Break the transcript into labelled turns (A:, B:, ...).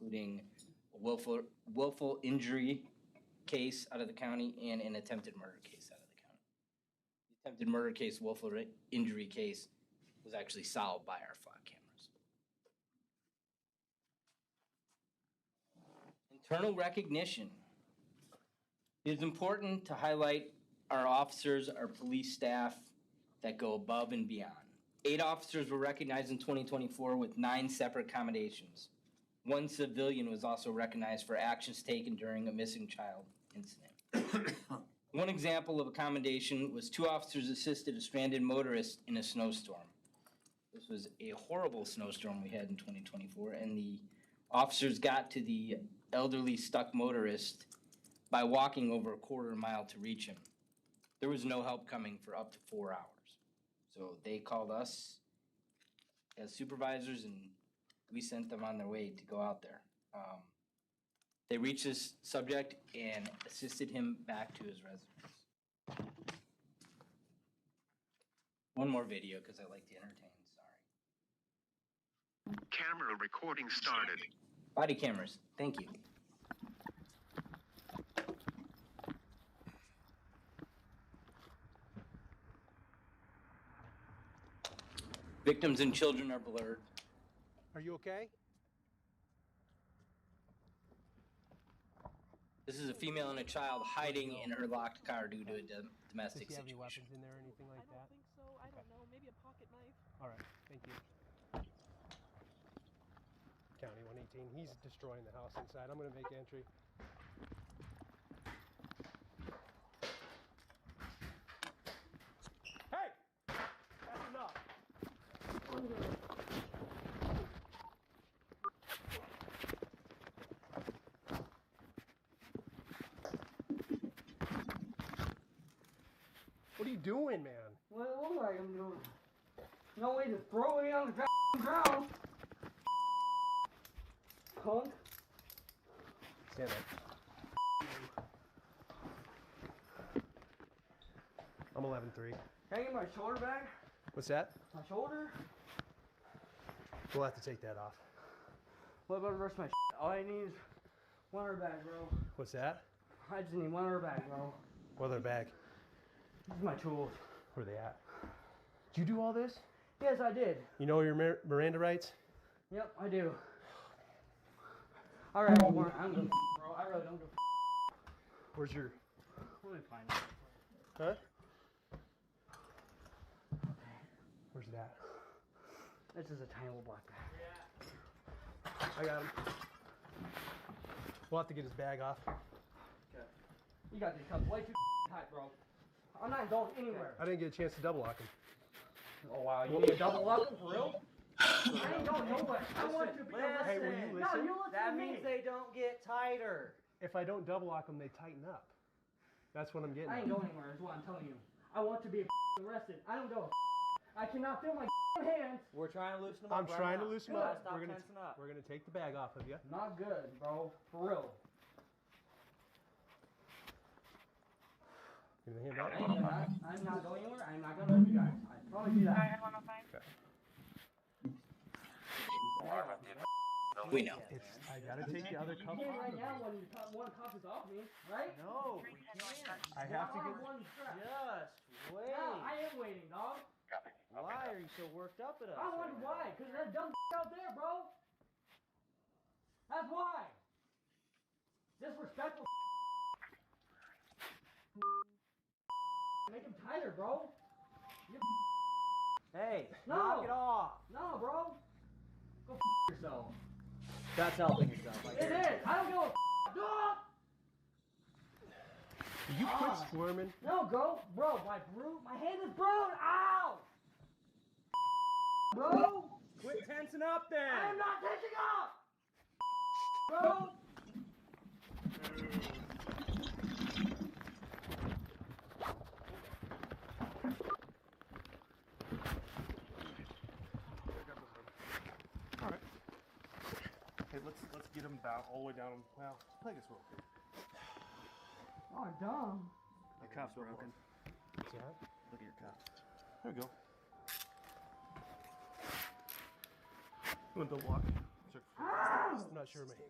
A: including a willful, willful injury case out of the county and an attempted murder case out of the county. The Attempted murder case, willful ri- injury case was actually solved by our flock cameras. Internal recognition. It is important to highlight our officers, our police staff that go above and beyond. Eight officers were recognized in 2024 with nine separate commendations. One civilian was also recognized for actions taken during a missing child incident. One example of a commendation was two officers assisted a stranded motorist in a snowstorm. This was a horrible snowstorm we had in 2024, and the officers got to the elderly stuck motorist by walking over a quarter mile to reach him. There was no help coming for up to four hours. So they called us as supervisors and we sent them on their way to go out there. Um, They reached this subject and assisted him back to his residence. One more video because I like to entertain, sorry.
B: Camera recording started.
A: Body cameras, thank you. Victims and children are blurred.
C: Are you okay?
A: This is a female and a child hiding in her locked car due to a dom-
C: Does
A: domestic
C: he have any
A: situation.
C: weapons in there or anything
D: I
C: like
D: don't
C: that?
D: think so. I don't know. Maybe a pocket knife.
C: All right, thank you. County 118, he's destroying the house inside. I'm gonna make entry. Hey! That's enough. What are you doing, man?
E: What it look like I'm doing? No way to throw it on the goddamn ground. Punk.
C: Stand up. I'm 11-3.
E: Can I get my shoulder back?
C: What's that?
E: My shoulder?
C: We'll have to take that off.
E: What about the rest of my shit? All I need is one air bag, bro.
C: What's that?
E: I just need one air bag, bro.
C: Well, they're back.
E: These are my tools.
C: Where are they at? Did you do all this?
E: Yes, I did.
C: You know your Mir- Miranda rights?
E: Yep, I do. Alright, well, Warren, I don't give a shit, bro. I really don't give a
C: Where's your...
E: shit. Let me find it.
C: Huh? Where's that?
E: This is a tiny little black bag.
C: I got him. We'll have to get his bag off.
E: You got these cups way too tight, bro. I'm not going anywhere.
C: I didn't get a chance to double lock him.
E: Oh wow, you need a double up for real? I ain't going nowhere. I want to be listen.
C: Hey, will you
E: No,
C: listen?
E: you listen
F: That
E: to me.
F: means they don't get tighter.
C: If I don't double lock them, they tighten up. That's what I'm getting. at.
E: I ain't going anywhere. Is what I'm telling you. I want to be arrested. I don't go. I cannot feel my hands.
F: We're trying to loosen them
C: I'm
F: up. right
C: trying
F: now.
C: to loosen
F: You gotta
C: up.
F: Stop
C: We're gonna,
F: tensing up.
C: we're gonna take the bag off of you.
E: Not good, bro. For real.
C: Give me the hand
E: I
C: out.
E: am not, I'm not going anywhere. I'm not gonna let you guys. I promise you that.
A: We know.
C: It's, I gotta take the other
E: You
C: cuff
E: can
C: off.
E: right
C: of
E: now
C: him.
E: when you cut one cup is off me, right?
F: No, we can't.
C: I have to
E: Now I'm
C: get.
E: one strap.
F: Just wait.
E: No, I am waiting, dog.
F: Why are you so worked up at us?
E: I wonder
F: right now?
E: why, because that dumb out there, bro. That's why. Disrespectful. Make him tighter, bro.
F: Hey,
E: No.
F: knock it off.
E: No, bro. Go f yourself.
F: That's helping yourself. I
E: It
F: guess.
E: is. I don't give a f- dog.
C: You quit
E: Ah.
C: squirming.
E: No, go, bro. My bro, my hand is brown. Ow. Bro,
F: Quit tensing up then.
E: I am not touching up. Bro.
C: Okay, let's let's get him down all the way down. Well, I guess we'll.
E: Oh, dumb.
G: Your cuff's broken. Look at your cuff.
C: There we go. You want to walk?
G: Sure.
C: Not sure, mate.